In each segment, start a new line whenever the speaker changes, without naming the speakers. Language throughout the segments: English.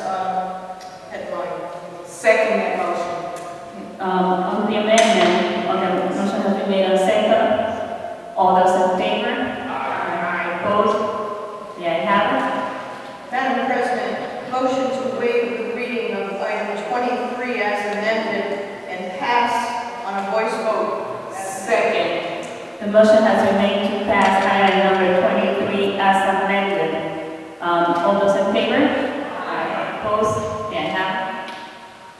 uh, um,
Second that motion.
Um, on the amendment, on the motion that we made on second, all those in favor? Aye. Opposed? The ayes have
Madam President, motion to waive the reading of item 23 as amended and pass on a voice vote.
Second.
it. The motion has been made to pass item number twenty-three as amended. Um, all those in favor? Aye. Opposed? The ayes have it.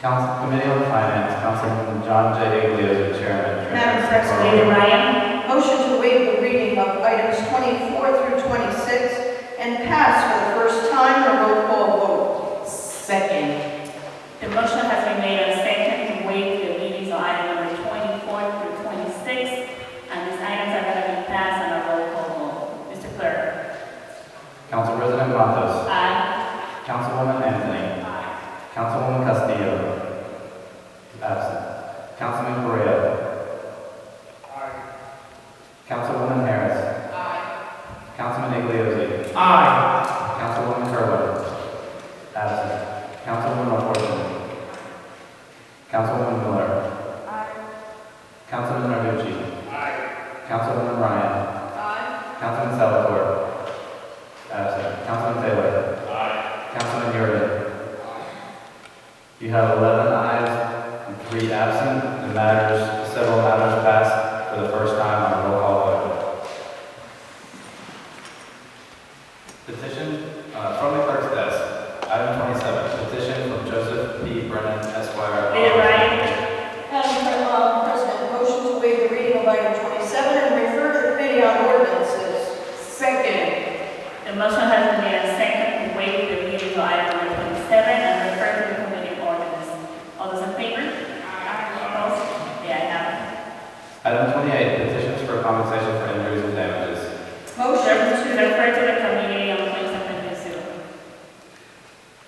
Council Committee on Finance, Councilman John J. Iglesias, the Chairman.
Madam
Lady
President.
Ryan,
Motion to waive the reading of items 24 through 26 and pass for the first time a roll call vote.
Second.
the motion has been made on second to waive the readings on item number twenty-four through twenty-six. And these items are gonna be passed on a roll call vote. Mr. Clerk?
Council President Matos,
Aye.
Councilwoman Anthony. Councilwoman Castillo. is Absent. Councilman Correa. Councilwoman Harris. Councilman Iglesias.
Aye.
Councilwoman Kerwin. Absent. Councilwoman Orton. Councilwoman Miller. Councilman Narducci. Councilwoman Ryan.
Uh,
Councilman Salvatore. Absent. Councilman Taylor. Councilman Yurden. You have 11 ayes and 3 absent. The matters, several matters passed for the first time on a roll call vote. Petition uh, from the clerk's desk, item 27, petition from Joseph P. Brennan Esquire.
Leader Ryan?
Madam Pre- uh, President, motion to waive the reading of item 27 and refer to committee on ordinances.
Second.
The motion has been made and seconded to waive the reading of item number twenty-seven and refer to the committee on ordinance. All those in favor? Opposed? The ayes have it.
Item 28, petitions for compensation for injuries and damages.
Motion
Refer-
to,
Refer to the committee on claims and consumer.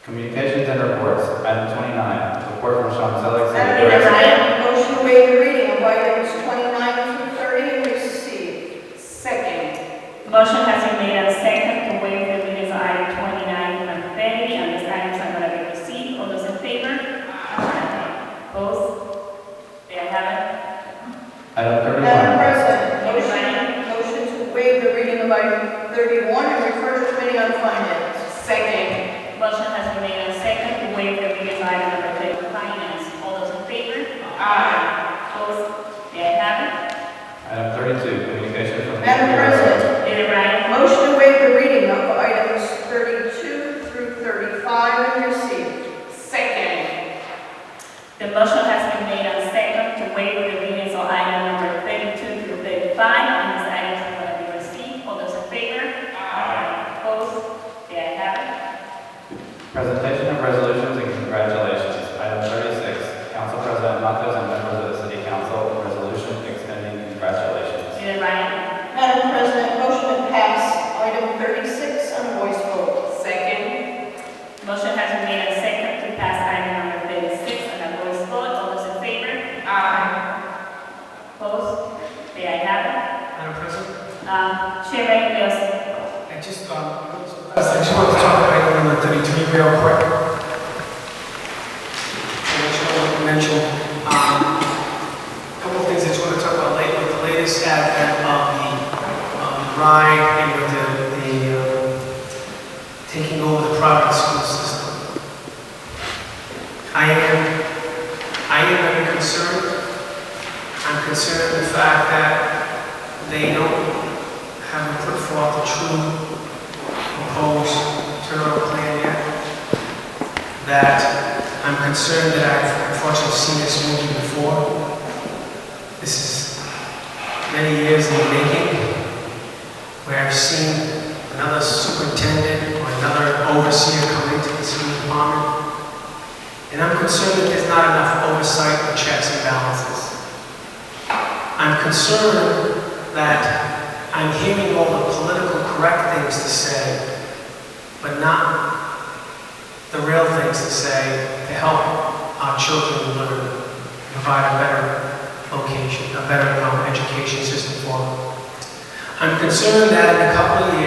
Communications and reports, item 29, report from Sean Selig, City
Madam
Director.
President, motion to waive the reading of items 29 through 30 and receive.
Second.
Motion has been made and seconded to waive the reading of item twenty-nine and thirty, and these items are going to be received. All those in favor? Opposed? The ayes have it.
Item
Madam
31,
President, motion, motion to waive the reading of item 31 and refer to committee on finance.
Second.
Motion has been made and seconded to waive the reading of item number thirty, finance. All those in favor?
Aye.
Opposed? The ayes have it.
item 32, communication from. the
Madam President,
Leader Ryan,
motion to waive the reading of items 32 through 35 and receive.
Second.
the motion has been made on second to waive the readings on item number thirty-two through thirty-five, and these items are going to be received. All those in favor? Aye. Opposed? The ayes have it.
Presentation of resolutions and congratulations. Item 36, Council President Matos and members of the City Council, resolution extending congratulations.
Leader Ryan,
Madam President, motion to pass item 36 on a voice vote.
Second.
motion has been made on second to pass item number thirty-six on a voice vote. All those in favor?
Aye.
Opposed? The ayes have it.
Madam President,
Um, Chair Ray Mills.
I just, um, I just want to talk about item number thirty-three real quick. Mention, mention, um, couple of things I just want to talk about late, with the latest advent of the, um, Rhine and with the, the, um, taking over the private school system. I am, I am very concerned. I'm concerned with the fact that they don't haven't put forth a true proposed turnaround plan yet. That I'm concerned that I've unfortunately seen this movie before. This is many years in the making, where I've seen another superintendent or another overseer come into the school department. And I'm concerned that there's not enough oversight or checks and balances. I'm concerned that I'm hearing all the political correct things to say, but not the real things to say to help our children learn, provide a better location, a better um, education system for them. I'm concerned that in a couple of years,